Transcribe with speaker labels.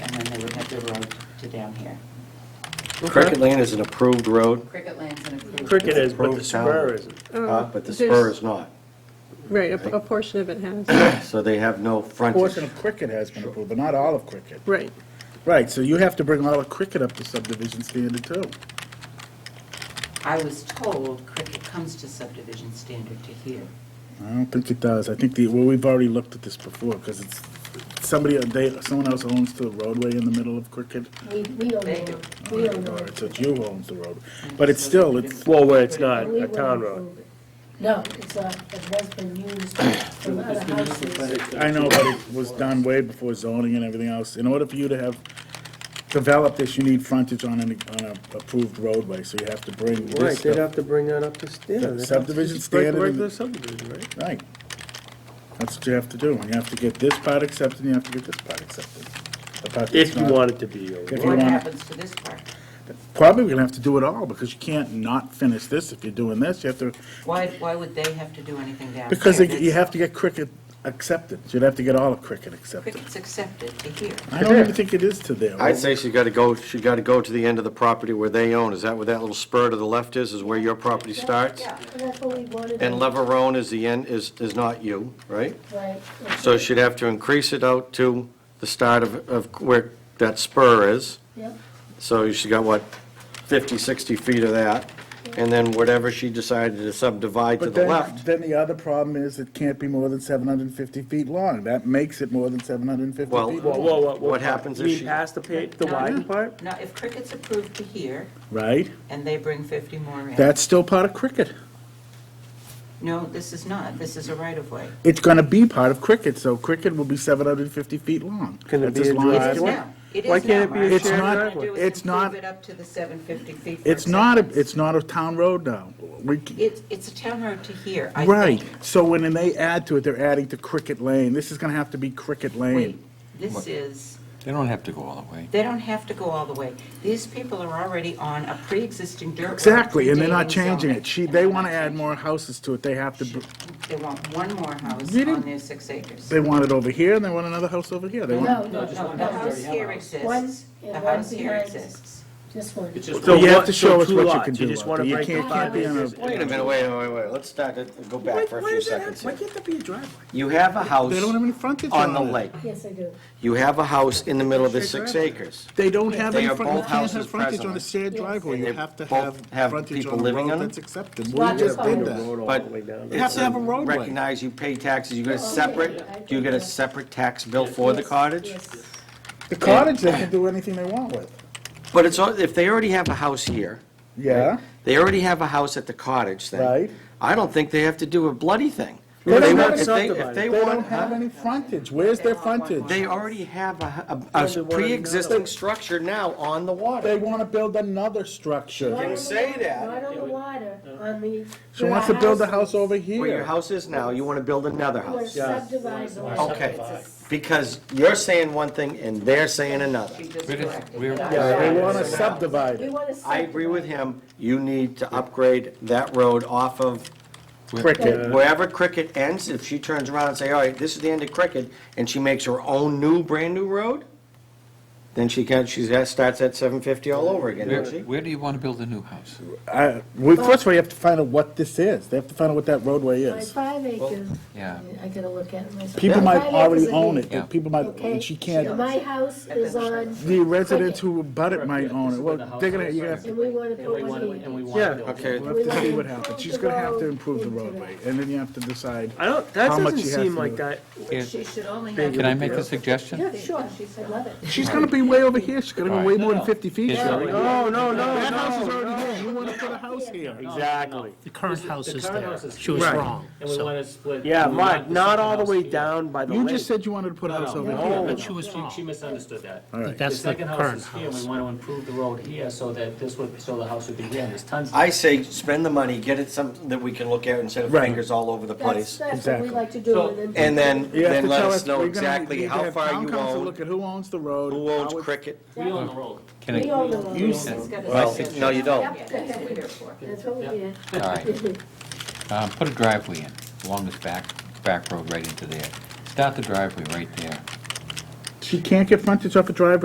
Speaker 1: road to down here.
Speaker 2: Cricket Lane is an approved road,
Speaker 1: Cricket Lane's an approved.
Speaker 3: Cricket is, but the
Speaker 2: Approved town.
Speaker 3: spur isn't.
Speaker 2: uh, but the
Speaker 4: there's-
Speaker 2: spur is not.
Speaker 4: Right, a- a portion of it has,
Speaker 2: So they have no
Speaker 5: Portion
Speaker 2: frontage.
Speaker 5: of Cricket has been approved, but not all of Cricket.
Speaker 4: right.
Speaker 5: Right, so you have to bring all of Cricket up to subdivision standard too.
Speaker 1: I was told Cricket comes to subdivision standard to here.
Speaker 5: I don't think it does. I think the, well, we've already looked at this before, because it's, somebody, they, someone else owns the roadway in the middle of Cricket.
Speaker 6: We, we own
Speaker 1: They
Speaker 6: the
Speaker 1: do.
Speaker 6: road. We own the
Speaker 5: Or
Speaker 6: road.
Speaker 5: it's it's you who owns the road. But it's still, it's,
Speaker 3: Well, where it's not
Speaker 6: We
Speaker 3: a
Speaker 6: will
Speaker 3: town road.
Speaker 6: improve it. No, it's not, it has been used for other houses.
Speaker 5: I know, but it was done way before zoning and everything else. In order for you to have developed this, you need frontage on an, on a approved roadway, so you have to bring
Speaker 3: Right,
Speaker 5: this
Speaker 3: they'd
Speaker 5: stuff.
Speaker 3: have to bring that up to, yeah. they'd have to
Speaker 5: Subdivision
Speaker 3: just break-
Speaker 5: standard
Speaker 3: break
Speaker 5: and-
Speaker 3: the subdivision, right?
Speaker 5: Right. That's what you have to do, and you have to get this part accepted, and you have to get this part accepted. The part that's
Speaker 3: If you
Speaker 5: not-
Speaker 3: want it to be, or-
Speaker 5: If you
Speaker 1: What
Speaker 5: want-
Speaker 1: happens to this part?
Speaker 5: Probably we're gonna have to do it all, because you can't not finish this if you're doing this, you have to,
Speaker 1: Why, why would they have to do anything down here?
Speaker 5: because they- you
Speaker 1: That's-
Speaker 5: have to get cricket accepted, you'd have to get all of cricket accepted.
Speaker 1: Cricket's accepted to here.
Speaker 5: I don't even think it is to there.
Speaker 2: I'd say she's got to go, she got to go to the end of the property where they own. Is that where that little spur to the left is, is where your property starts?
Speaker 1: Yeah.
Speaker 6: And that's what we wanted.
Speaker 2: And Leverone is the end, is, is not you, right?
Speaker 6: Right.
Speaker 2: So she'd have to increase it out to the start of, of where that spur is.
Speaker 6: Yep.
Speaker 2: So she got, what, 50, 60 feet of that? And then whatever she decided to subdivide to
Speaker 5: But
Speaker 2: the
Speaker 5: then,
Speaker 2: left.
Speaker 5: then the other problem is it can't be more than seven hundred and fifty feet long, that makes it more than seven hundred and fifty
Speaker 2: Well-
Speaker 5: feet
Speaker 3: Whoa,
Speaker 5: long.
Speaker 3: whoa, whoa, whoa.
Speaker 2: What happens
Speaker 3: You
Speaker 2: if
Speaker 3: mean
Speaker 2: she-
Speaker 3: past the pa, the
Speaker 1: No.
Speaker 3: widen part?
Speaker 1: Now, if Cricket's approved to here,
Speaker 5: Right,
Speaker 1: and they bring 50 more in.
Speaker 5: that's still part of cricket.
Speaker 1: No, this is not, this is a right-of-way.
Speaker 5: It's gonna be part of cricket, so cricket will be seven hundred and fifty feet long.
Speaker 3: Can it be
Speaker 5: That's as
Speaker 3: a
Speaker 5: long
Speaker 3: drive?
Speaker 5: as this
Speaker 1: It is
Speaker 3: Why-
Speaker 1: now, it is now.
Speaker 3: why can't it be a
Speaker 1: Mark.
Speaker 5: shared
Speaker 1: All we're gonna
Speaker 5: driveway?
Speaker 1: do is
Speaker 5: It's not-
Speaker 1: improve it up to the 750 feet for
Speaker 5: It's not, a-
Speaker 1: acceptance.
Speaker 5: it's not a town road now. We c-
Speaker 1: It's, it's a town road to here, I think.
Speaker 5: Right, so when then they add to it, they're adding to Cricket Lane. This is gonna have to be Cricket
Speaker 1: Wait,
Speaker 5: Lane.
Speaker 1: this is,
Speaker 7: They don't have to go all the way.
Speaker 1: they don't have to go all the way. These people are already on a pre-existing dirt road.
Speaker 5: Exactly, and they're not
Speaker 1: predating
Speaker 5: changing
Speaker 1: zoning.
Speaker 5: it. She,
Speaker 1: And
Speaker 5: they
Speaker 1: they're
Speaker 5: wanna
Speaker 1: not
Speaker 5: add
Speaker 1: changing
Speaker 5: more houses to it. They have to, b-
Speaker 1: it. They want one more house
Speaker 5: You
Speaker 1: on
Speaker 5: didn't-
Speaker 1: their six acres.
Speaker 5: they want it over here and they want another house over here. They
Speaker 6: No,
Speaker 5: want,
Speaker 6: no,
Speaker 1: No,
Speaker 6: no,
Speaker 1: the
Speaker 6: no,
Speaker 1: house
Speaker 6: just-
Speaker 1: here
Speaker 6: One-
Speaker 1: exists,
Speaker 6: yeah,
Speaker 1: the
Speaker 6: one
Speaker 1: house here
Speaker 6: behind it.
Speaker 1: exists.
Speaker 6: this one.
Speaker 3: So
Speaker 5: you
Speaker 3: one-
Speaker 5: have to
Speaker 3: so
Speaker 5: show us
Speaker 3: two
Speaker 5: what you
Speaker 3: lots.
Speaker 5: can do
Speaker 3: just
Speaker 5: out
Speaker 3: wanna
Speaker 5: there. You
Speaker 3: break the
Speaker 5: can't- can't be on a-
Speaker 3: five.
Speaker 2: Wait a minute, wait, wait, wait, let's start it, go back for a few seconds here.
Speaker 5: can't there be a driveway?
Speaker 2: You have a house
Speaker 5: They don't have any frontage
Speaker 2: on
Speaker 5: on
Speaker 2: the
Speaker 5: it.
Speaker 2: lake.
Speaker 6: Yes, I do.
Speaker 2: You have a house in the middle of the six acres.
Speaker 5: They don't have
Speaker 2: They
Speaker 5: any,
Speaker 2: are
Speaker 5: front- you
Speaker 2: both
Speaker 5: can't have
Speaker 2: houses
Speaker 5: frontage on a
Speaker 2: presently.
Speaker 5: shared driveway. You
Speaker 2: And they
Speaker 5: have to
Speaker 2: both
Speaker 5: have
Speaker 2: have
Speaker 5: frontage
Speaker 2: people
Speaker 5: on a
Speaker 2: living on
Speaker 5: road
Speaker 2: them?
Speaker 5: that's accepted. We
Speaker 6: Lots
Speaker 5: just
Speaker 6: of
Speaker 5: did
Speaker 6: frontage.
Speaker 5: that.
Speaker 2: But
Speaker 5: You have to have a roadway.
Speaker 2: recognize you pay taxes, you get a
Speaker 6: Oh, okay. I
Speaker 2: separate, do you get a
Speaker 6: think-
Speaker 2: separate tax bill for the
Speaker 6: Yes,
Speaker 2: cottage?
Speaker 6: yes.
Speaker 5: The cottage, they can do anything they want with.
Speaker 2: But it's, all- if they already have a house here,
Speaker 5: Yeah,
Speaker 2: they already have a house at the cottage thing.
Speaker 5: Right.
Speaker 2: I don't think they have to do a bloody thing.
Speaker 5: They
Speaker 2: If
Speaker 5: don't
Speaker 2: want-
Speaker 5: have
Speaker 2: if they- if
Speaker 3: subdivided.
Speaker 2: they
Speaker 5: they
Speaker 2: want-
Speaker 5: don't have any frontage. Where's their frontage?
Speaker 2: They already have a, a- a
Speaker 3: they wanted another
Speaker 2: pre-existing
Speaker 3: one.
Speaker 2: structure now on the
Speaker 5: They
Speaker 2: water.
Speaker 5: want to build another
Speaker 6: Not
Speaker 5: structure.
Speaker 6: on the
Speaker 2: say
Speaker 6: water,
Speaker 2: that.
Speaker 6: Not on the water, on the.
Speaker 5: She wants to build a house
Speaker 6: houses.
Speaker 5: over
Speaker 2: Where your
Speaker 5: here.
Speaker 2: house is now, you want to build another
Speaker 6: We're
Speaker 2: house.
Speaker 6: subdivided.
Speaker 2: Okay, because you're saying one thing and they're saying another.
Speaker 1: She just
Speaker 7: But it's-
Speaker 1: corrected
Speaker 7: we're-
Speaker 1: that.
Speaker 5: Yeah, they want to
Speaker 6: We
Speaker 5: subdivide it.
Speaker 6: want to.
Speaker 2: I agree with him, you need to upgrade that road off of
Speaker 5: Cricket.
Speaker 2: wherever Cricket ends, if she turns around and say, all right, this is the end of Cricket, and she makes her own new, brand-new road, then she can, she starts at seven fifty all over again,
Speaker 7: Where,
Speaker 2: doesn't she?
Speaker 7: where do you want to build a new house?
Speaker 5: I- we- First of all, you have to find out what this is. They have to find out what that roadway
Speaker 6: My
Speaker 5: is.
Speaker 6: five acres.
Speaker 7: Yeah.
Speaker 6: I gotta look at it myself.
Speaker 5: People
Speaker 6: My
Speaker 5: might
Speaker 6: five
Speaker 5: already
Speaker 6: acres
Speaker 5: own
Speaker 6: is-
Speaker 5: it,
Speaker 7: Yeah.
Speaker 5: but people might,
Speaker 6: Okay.
Speaker 5: and she can't,
Speaker 6: My house is on,
Speaker 5: the residents who abut it might own it. Well, they're gonna, you're gonna have to
Speaker 6: and we want to put one here.
Speaker 3: Yeah,
Speaker 2: Okay,
Speaker 5: we'll have to see what happens. She's gonna have to improve the roadway, and then you have to decide.
Speaker 3: I don't, that
Speaker 5: How much
Speaker 3: doesn't
Speaker 5: you have
Speaker 3: seem
Speaker 5: to
Speaker 3: like
Speaker 5: do.
Speaker 3: that.
Speaker 1: She should only have.
Speaker 7: Can I make a suggestion?
Speaker 6: Yeah, sure, I love it.
Speaker 5: She's gonna be way over here. She's gonna be way more than fifty feet.
Speaker 7: Is-
Speaker 3: No, no, no,
Speaker 5: That
Speaker 3: no.
Speaker 5: house is already here. You want to put a house here.
Speaker 3: Exactly.
Speaker 8: The current house is there.
Speaker 9: house is
Speaker 8: She was
Speaker 5: Right.
Speaker 8: wrong.
Speaker 9: And we want to split.
Speaker 3: Yeah,
Speaker 9: we want
Speaker 3: Mike,
Speaker 9: the
Speaker 3: not
Speaker 9: second
Speaker 3: all the
Speaker 9: house
Speaker 3: way
Speaker 9: here.
Speaker 3: down by the
Speaker 5: You
Speaker 3: lake.
Speaker 5: just said you wanted to put a house over here.
Speaker 8: But she was
Speaker 9: She,
Speaker 8: wrong.
Speaker 9: she misunderstood that.
Speaker 5: right.
Speaker 9: The
Speaker 8: That's the
Speaker 9: second house
Speaker 8: current
Speaker 9: is here, we
Speaker 8: house.
Speaker 9: want to improve the road here so that this would, so the house would be here, and there's tons.
Speaker 2: I say, spend the money, get it something that we can look at instead of
Speaker 5: Right.
Speaker 2: fingers all over the
Speaker 6: That's,
Speaker 2: place.
Speaker 6: that's what we
Speaker 5: Exactly.
Speaker 6: like to do. then-
Speaker 2: And then,
Speaker 5: You have
Speaker 2: then
Speaker 5: to
Speaker 2: let
Speaker 5: tell
Speaker 2: us know
Speaker 5: we're gonna need
Speaker 2: exactly
Speaker 5: to
Speaker 2: how
Speaker 5: have
Speaker 2: far
Speaker 5: town
Speaker 2: you
Speaker 5: council Look
Speaker 2: own,
Speaker 5: at who owns the road.
Speaker 2: who owns
Speaker 5: how it-
Speaker 2: Cricket.
Speaker 9: We own the road.
Speaker 7: Can
Speaker 6: We
Speaker 7: I,
Speaker 6: own the
Speaker 7: you
Speaker 6: road.
Speaker 7: said,
Speaker 2: Well, no, you don't.
Speaker 1: Yeah, that's what we're here for.
Speaker 6: That's what we did.
Speaker 7: all right, um, put a driveway in, along this back, back road right into there. Start the driveway right there.
Speaker 5: She can't get frontage off a driveway